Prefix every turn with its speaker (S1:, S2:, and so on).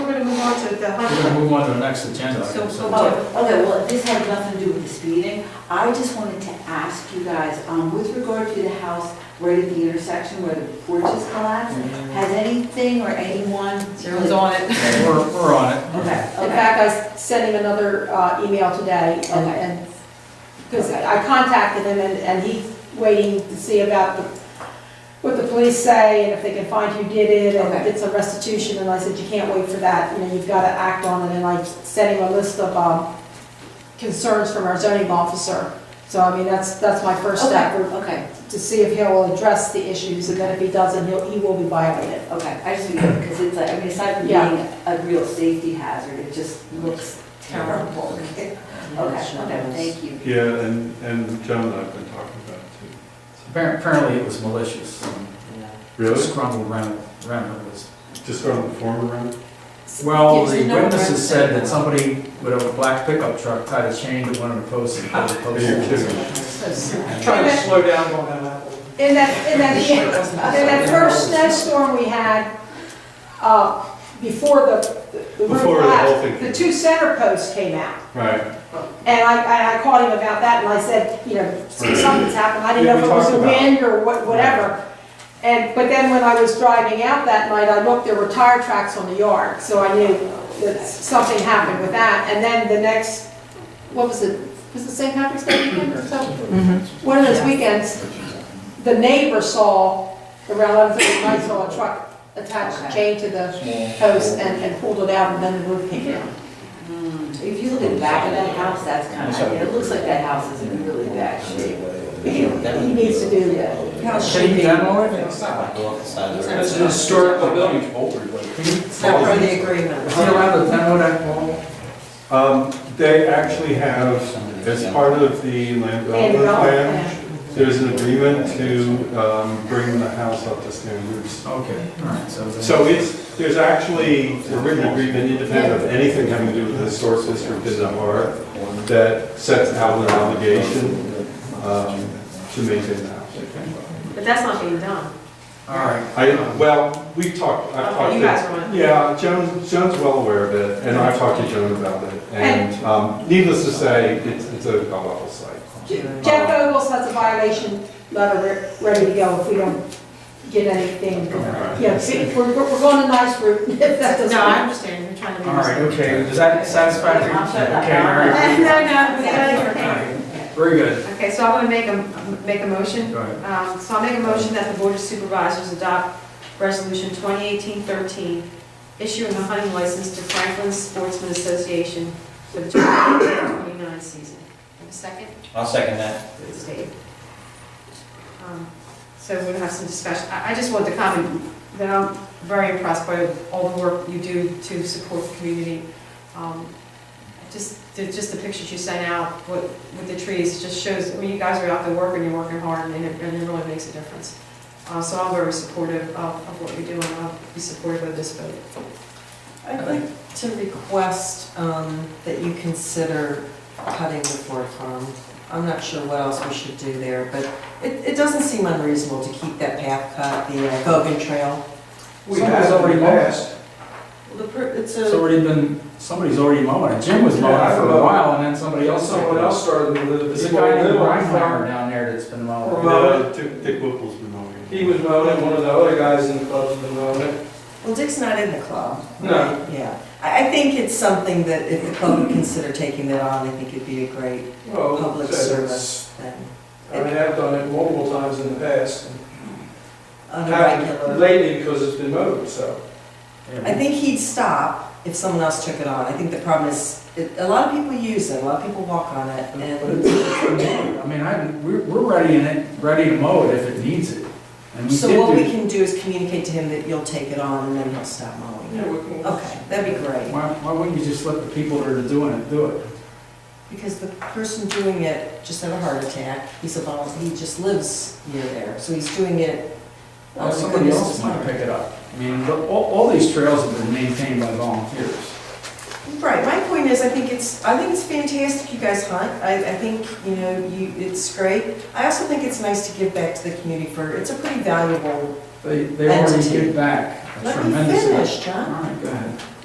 S1: on to the
S2: We're gonna
S1: hundred.
S2: move on to the next agenda.
S1: So,
S2: item,
S1: so-
S3: Oh, okay, well, this had nothing to do with this meeting. I just wanted to ask you guys, um, with regard to the house right at the intersection where the porch is collapsed, has anything or anyone?
S4: Zero's on it.
S2: We're, we're on it.
S3: Okay,
S5: In
S3: okay.
S5: fact, I sent him another uh, email today, and-
S3: Okay.
S5: and, because I I contacted him, and and he's waiting to see about the- what the police say, and if they can find who did it, and if
S3: Okay.
S5: it's a restitution, and I said, you can't wait for that, you know, you've got to act on it, and I sent him a list of um, concerns from our zoning officer. So, I mean, that's, that's my first step,
S3: Okay, okay,
S5: to see if he'll address the issues, and then if he doesn't, he'll, he will be violated.
S3: okay. I just, because it's like, I mean, aside from being
S5: Yeah.
S3: a real safety hazard, it just looks terrible. Okay, okay, thank you.
S6: Yeah, and, and John and I have been talking about it
S2: Appar- Apparently it was malicious. um,
S6: too. Really?
S2: Scrumble Renner, Renner was.
S6: Just on the former round?
S2: Well,
S4: Yes,
S2: the
S4: no,
S2: witnesses
S4: Renner.
S2: said that somebody with a black pickup truck tied a chain to one of the posts and pulled the post.
S6: You're kidding.
S7: Trying to slow down on that.
S5: In that, in that, In that first snowstorm we had, uh, before the, the roof
S6: Before the whole thing
S5: collapsed, the two center posts came out.
S6: Right.
S5: And I, I- I called him about that, and I said, you know, something's happened, I didn't know if it was the wind or what- whatever. And, but then when I was driving out that night, I looked, there were tire tracks on the yard, so I knew that something happened with that. And then the next, what was it, was it St. Patrick's Day weekend or something? One of those weekends, the neighbor saw, around eleven thirty, I saw a truck attached, chained to the post, and, and pulled it out, and then the roof came down.
S3: Mm, If you look at the back of that house, that's kind of, I mean, it looks like that house is in really bad shape.
S5: He needs to do that.
S2: Can you demo it?
S7: It's an historical building.
S2: Can you-
S4: Not for the agreement.
S2: Is he allowed to demo that wall?
S6: Um, they actually have, as part of the land
S5: And
S6: development plan,
S5: development
S6: there's an agreement to, um, bring the house up to standards.
S2: Okay, all right, so. then-
S6: So it's, there's actually a written agreement independent of anything having to do with the historic district in the heart that sets out an obligation, um, to maintain the house.
S1: But that's not being done.
S2: All right.
S6: I, well, we've talked, I've talked.
S1: You
S6: to-
S1: guys are on it.
S6: Yeah, Joan, Joan's well aware of it, and I've talked to Joan about it. And um, needless to say, it's, it's a god-awful site.
S5: Jeff Ogles has a violation letter re- ready to go if we don't get anything. Yeah, see, we're, we're going a nice route if that doesn't.
S1: No, I understand, you're trying to be.
S2: All right, okay, is that satisfactory?
S3: I'm shut up.
S2: Okay, all right.
S1: No, no, we
S2: All
S1: gotta-
S2: right, Very good.
S1: Okay, so I'm gonna make a, make a motion
S2: Go ahead.
S1: Um, So I'll make a motion that the Board of Supervisors adopt Resolution 2018-13, issuing a hunting license to Franklin Sportsman Association for the 2028-29 season. Have a second?
S8: I'll second that.
S1: It's Dave. Um, So we'll have some discussion. I I just want to comment that I'm very impressed by all the work you do to support the community. Um, Just, the- just the pictures you sent out with with the trees just shows, I mean, you guys are out there working, you're working hard, and it and it really makes a difference. Uh, So I'm very supportive of of what you're doing, I'll be supportive of this vote.
S4: I'd like to request um, that you consider cutting the Ford Farm. I'm not sure what else we should do there, but it, it doesn't seem unreasonable to keep that path cut, the uh, Bogan Trail.
S7: We
S2: Somebody's
S7: have
S2: already
S7: already passed.
S4: Well, the per- It's
S2: It's
S4: a,
S2: already been, somebody's already mowing it. Jim was mowing it for a while and then somebody else.
S7: Someone else started with it.
S2: There's a guy named Reinhardt down there that's been mowing. it.
S7: Well-
S6: Uh, Dick Dick Whipple's been over here.
S7: He was mowing it, one of the other guys in the club's been mowing it.
S4: well, Dick's not in the club.
S7: No.
S4: Yeah. I, I think it's something that if the club would consider taking that on, I think it'd be a great
S7: Well,
S4: public
S7: it's-
S4: service thing.
S7: I mean, I've done it multiple times in the past.
S4: On a regular-
S7: Haven't Lately, because it's been mowed, so.
S4: I think he'd stop if someone else took it on. I think the problem is, it- a lot of people use it, a lot of people walk on it, and
S2: I mean, I, we're, we're ready in it, ready to mow it if it needs it. And we
S4: so what we
S2: did do,
S4: can do is communicate to him that you'll take it on, and then he'll stop mowing. Okay, that'd be great,
S2: why, why wouldn't you just let the people that are doing it do it?
S4: because the person doing it just had a heart attack, he's a vol, he just lives near there, so he's doing it. out
S2: Well,
S4: of
S2: somebody
S4: Oh, goodness
S2: else
S4: of
S2: might
S4: heart.
S2: pick it up. I mean, the- all, all these trails have been maintained by volunteers.
S4: Right, my point is, I think it's, I think it's fantastic you guys hunt, I, I think, you know, you, it's great. I also think it's nice to give back to the community for, it's a pretty valuable,
S2: They, they already
S4: Entity.
S2: give back
S4: let
S2: a
S4: me
S2: tremendous amount.
S4: finish, John.
S2: All right, go ahead.